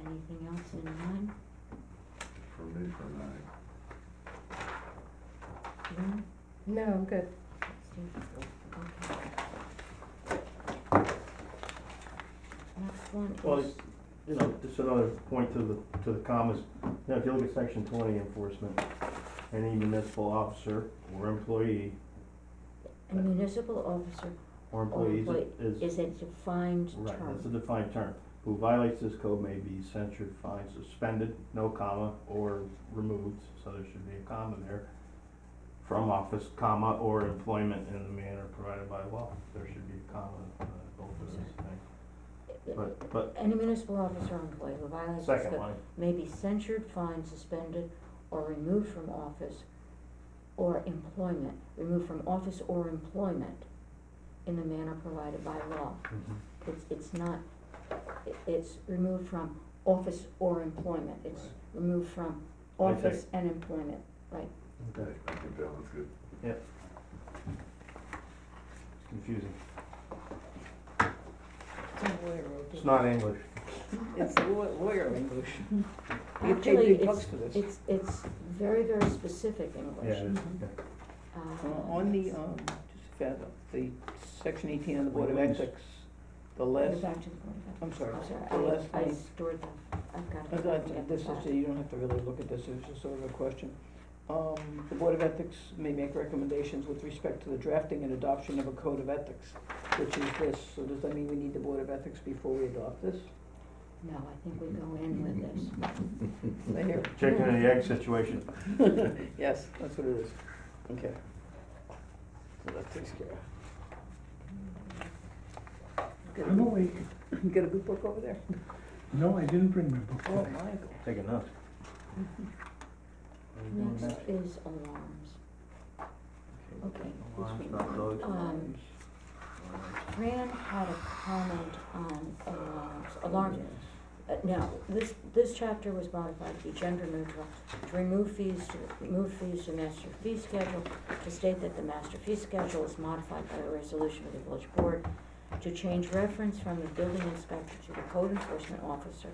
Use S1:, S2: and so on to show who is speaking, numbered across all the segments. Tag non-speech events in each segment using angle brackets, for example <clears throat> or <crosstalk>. S1: Anything else in nine?
S2: for me for nine.
S1: Lynn?
S3: No, I'm good.
S1: Steve? Okay. Next
S4: Well,
S1: one is,
S4: You know, just another point to the, to the commas, you know, if you look at section twenty enforcement, any municipal officer or employee,
S1: a municipal officer
S4: or employees
S1: employee
S4: is,
S1: is a defined
S4: right, that's a
S1: term.
S4: defined term. Who violates this code may be censured, fined, suspended, no comma, or removed, so there should be a comma there, from office, comma, or employment in the manner provided by law, there should be a comma, uh, both of those things. But, but,
S1: Any municipal officer or employee who violates this
S4: second
S1: code
S4: one,
S1: may be censured, fined, suspended, or removed from office or employment, removed from office or employment in the manner provided by law.
S4: mhm,
S1: It's, it's not, it- it's removed from office or employment, it's
S4: Right.
S1: removed from
S4: I think-
S1: office and employment.
S4: okay,
S2: I think that one's good.
S4: it's confusing,
S5: It's a lawyer, okay.
S4: it's not English.
S5: It's law- lawyer English. You pay
S1: Actually,
S5: big
S1: it's-
S5: bucks for this.
S1: It's, it's very, very specific English.
S4: Yeah, it is,
S5: Mhm.
S4: okay.
S1: Uh,
S5: Uh, On the, um, just found out, the section eighteen on the Board of
S4: Wait, wait.
S5: Ethics, the
S1: go
S5: last,
S1: back to the point of that.
S5: I'm sorry,
S1: I'm
S5: the
S1: sorry,
S5: last
S1: I, I
S5: one.
S1: stored them, I've got
S5: I
S1: to.
S5: thought
S1: get
S5: This
S1: back.
S5: is, you don't have to really look at this, it's just sort of a question. Um, the Board of Ethics may make recommendations with respect to the drafting and adoption of a code of ethics, which is this, so does that mean we need the Board of Ethics before we adopt this?
S1: No, I think we go in with this.
S2: <laughs>
S5: Is that here?
S4: Chicken and the egg situation.
S5: Yes, that's what it is, okay. So that takes care of.
S6: I'm awake.
S5: <laughs> You got a good book over there?
S6: No, I didn't bring my book
S5: Oh,
S6: today.
S5: Michael.
S4: Take a note.
S1: Next is alarms. Okay,
S4: Alarms,
S5: Which
S4: not
S5: one?
S4: those.
S1: Um, Fran had a comment on alarms, alarms. Uh, Now, this, this chapter was modified to be gender neutral, to remove fees, to remove fees to master fee schedule, to state that the master fee schedule is modified by a resolution of the village board, to change reference from the building inspector to the code enforcement officer,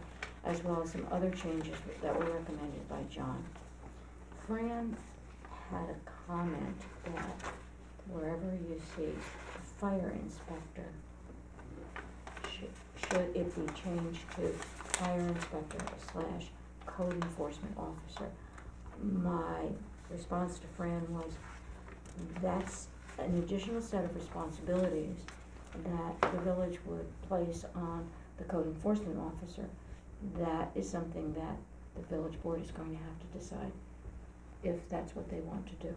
S1: as well as some other changes that were recommended by John. Fran had a comment that wherever you see fire inspector, should, should it be changed to fire inspector slash code enforcement officer? My response to Fran was, that's an additional set of responsibilities that the village would place on the code enforcement officer. That is something that the village board is going to have to decide if that's what they want to do.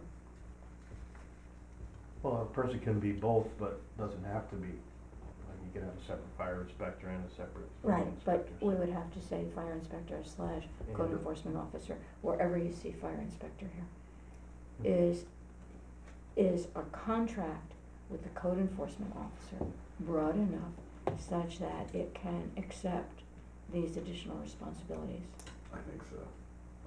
S4: Well, a person can be both, but doesn't have to be. Like, you could have a separate fire inspector and a separate building
S1: Right,
S4: inspector.
S1: but we
S4: so-
S1: would have to say fire inspector slash code
S4: and-
S1: enforcement officer, wherever you see fire inspector here, is, is a contract with the code enforcement officer broad enough such that it can accept these additional responsibilities?
S2: I think so.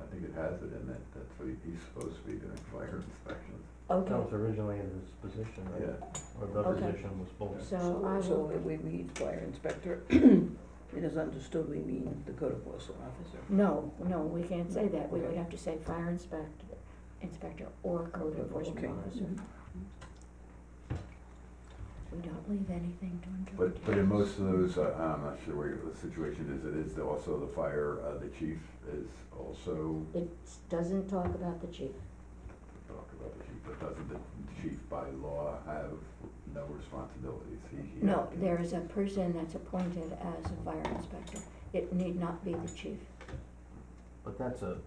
S2: I think it has it in it. That's what he- he's supposed to be doing, fire inspections.
S1: Okay,
S4: That was originally in this position, right?
S2: Yeah,
S4: Or the
S1: Okay.
S4: position was both.
S1: so I
S5: So
S1: will,
S5: if we read fire inspector, <clears throat> it is understood we mean the code enforcement officer.
S1: no, no, we can't say that, we would
S5: Okay.
S1: have to say fire inspector, inspector or code enforcement
S5: Okay. Mm-hmm.
S1: officer. We don't leave anything to
S2: but, but in
S1: interpretation.
S2: most of those, uh, I'm not sure where the situation is, it is also the fire, uh, the chief is also,
S1: It doesn't talk about the chief.
S2: talk about the chief, but doesn't the chief by law have no responsibilities? He- he
S1: No,
S2: can-
S1: there is a person that's appointed as a fire inspector. It need not be the chief.
S4: But that's a,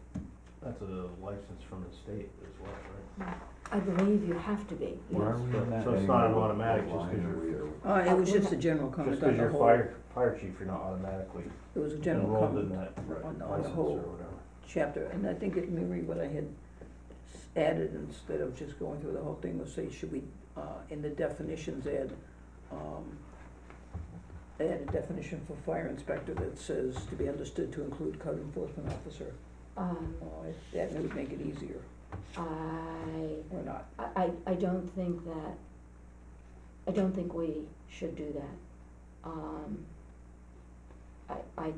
S4: that's a license from the state as well, right?
S1: I believe you have to be,
S2: Where are
S1: yes.
S2: we on that?
S4: So it's not an
S2: Anyway,
S4: automatic,
S2: what
S4: just 'cause
S2: line
S4: you're-
S2: are we- are we-
S5: Uh, it was
S1: Uh, we're
S5: just a
S1: not-
S5: general comment
S4: Just
S5: on
S4: because
S5: the
S4: you're
S5: whole, it
S4: fire, fire chief, you're not automatically
S5: was a general
S4: enrolled in
S5: comment
S4: that
S2: Right.
S5: on, on the
S4: license or
S5: whole
S4: whatever.
S5: chapter, and I think it, maybe what I had s- added instead of just going through the whole thing, was say, should we, uh, in the definitions add, um, add a definition for fire inspector that says to be understood to include code enforcement officer,
S1: Um,
S5: uh, that would make it easier,
S1: I,
S5: or not.
S1: I, I- I don't think that, I don't think we should do that. Um, I, I